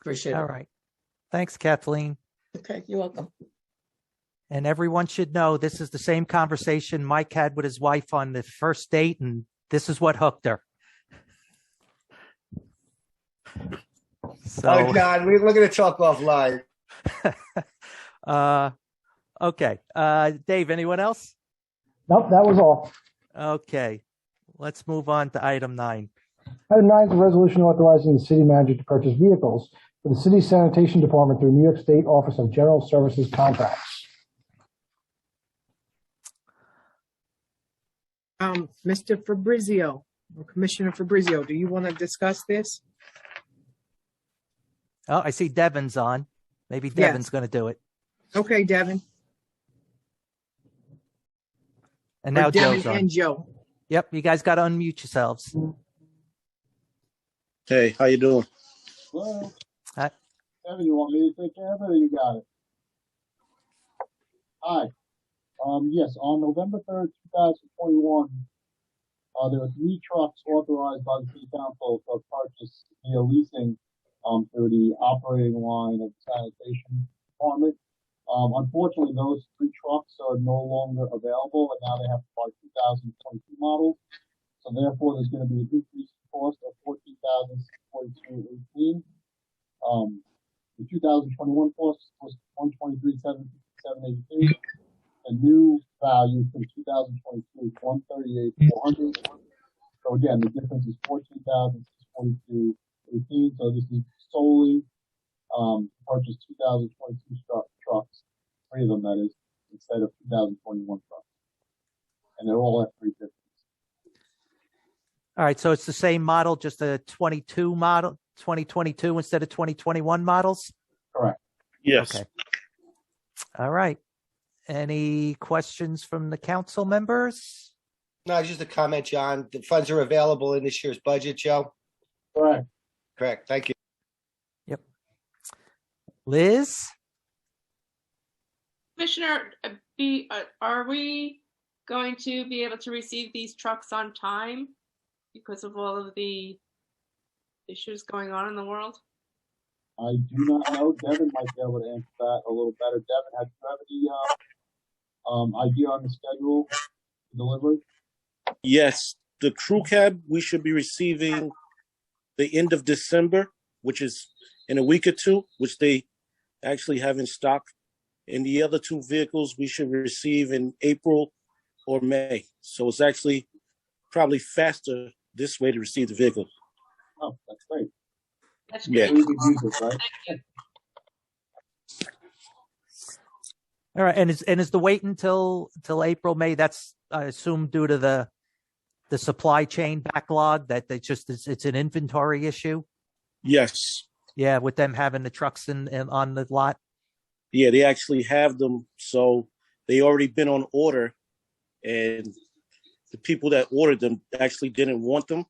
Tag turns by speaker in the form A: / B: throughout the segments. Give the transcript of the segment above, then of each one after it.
A: Appreciate
B: All
A: it.
B: right. Thanks, Kathleen.
A: Okay, you're welcome.
B: And everyone should know this is the same conversation Mike had with his wife on the first date, and this is what hooked her.
C: Oh,
B: So,
D: Oh,
C: God, we, we're going to talk offline.
B: uh, okay. Uh, Dave, anyone else?
E: Nope, that was all.
B: Okay. Let's move on to item nine.
E: Item nine is a resolution authorizing the city manager to purchase vehicles for the city sanitation department through New York State Office of General Services contracts.
D: Um, Mr. Fabrizio, or Commissioner Fabrizio, do you want to discuss this?
B: Oh, I see Devin's on. Maybe
D: Yes.
B: Devin's going to do it.
D: Okay, Devin.
B: And
D: Or
B: now
D: Devin
B: Joe's on.
D: And Joe.
B: Yep. You guys got to unmute yourselves.
F: Hey, how you doing?
G: Well,
B: Hi.
G: Kevin, you want me to take care of it or you got it? Hi. Um, yes, on November third, two thousand twenty-one, uh, there were three trucks authorized by the city council for purchase via leasing, um, through the operating line of sanitation department. Um, unfortunately, those three trucks are no longer available and now they have to buy two thousand twenty-two models. So therefore, there's gonna be a decrease in cost of fourteen thousand six forty-two eighteen. Um, the two thousand twenty-one cost was one twenty-three, seven, seven eighty-two. The new value from two thousand twenty-two is one thirty-eight, four hundred. So again, the difference is fourteen thousand, six forty-two, eighteen, so this is solely, um, purchased two thousand twenty-two truck, trucks, three of them that is, instead of two thousand twenty-one trucks. And they're all F three fifty.
B: All right. So it's the same model, just a 22 model, 2022 instead of 2021 models.
F: Yes.
B: Okay. All right. Any questions from the council members?
C: No, just a comment, John. The funds are available in this year's budget, Joe.
G: Correct.
C: Correct. Thank you.
B: Liz?
H: Commissioner, uh, be, uh, are we going to be able to receive these trucks on time because of all of the issues going on in the world?
G: I do not know. Devin might be able to answer that a little better. Devin, have you have any uh, um, idea on the schedule for delivery?
F: Yes, the crew cab we should be receiving the end of December, which is in a week or two, which they actually have in stock. And the other two vehicles we should receive in April or May. So it's actually probably faster this way to receive the vehicle.
G: Oh, that's great.
H: That's
F: Yeah.
H: great.
G: We could use it, right?
H: Thank you.
B: All right. And is, and is the wait until, till April, May? That's, I assume due to the, the supply chain backlog that they just, it's, it's an inventory issue.
F: Yes.
B: Yeah. With them having the trucks in, in on the lot.
F: Yeah, they actually have them. So they already been on order, and the people that ordered them actually didn't want them.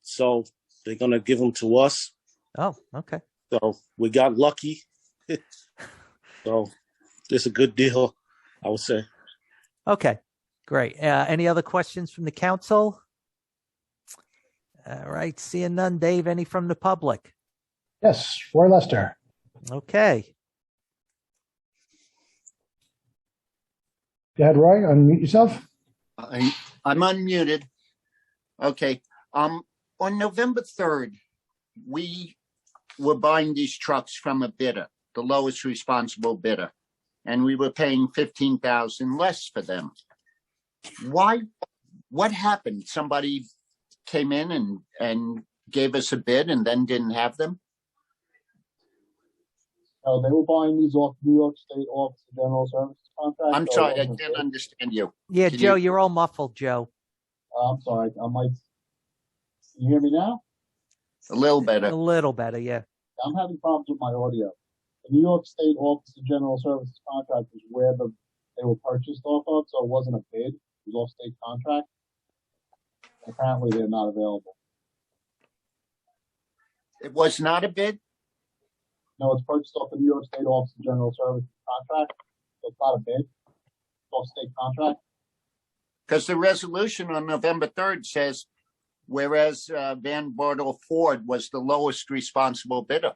F: So they're gonna give them to us.
B: Oh, okay.
F: So we got lucky. so it's a good deal, I would say.
B: Okay. Great. Uh, any other questions from the council? All right. Seeing none. Dave, any from the public?
E: Yes, Roy Lester.
B: Okay.
E: Go ahead, Roy, unmute yourself.
I: I, I'm unmuted. Okay, um, on November third, we were buying these trucks from a bidder, the lowest responsible bidder. And we were paying fifteen thousand less for them. Why, what happened? Somebody came in and, and gave us a bid and then didn't have them?
G: Uh, they were buying these off New York State Office of General Services contract. Oh,
I: I'm
G: so-
I: sorry, I can't understand you.
B: Yeah,
I: Can
B: Joe,
I: you-
B: you're all muffled, Joe.
G: Uh, I'm sorry. I might. Can you hear me now?
I: A little
B: A
I: better.
B: little better, yeah.
G: I'm having problems with my audio. The New York State Office of General Services contract is where the they were purchased off of, so it wasn't a bid. It was off state contract. Apparently, they're not available.
I: It was not a bid?
G: No, it's purchased off the New York State Office of General Services contract. So it's not a bid. It's off state contract.
I: Because the resolution on November third says, whereas uh, Van Bordeaux Ford was the lowest responsible bidder.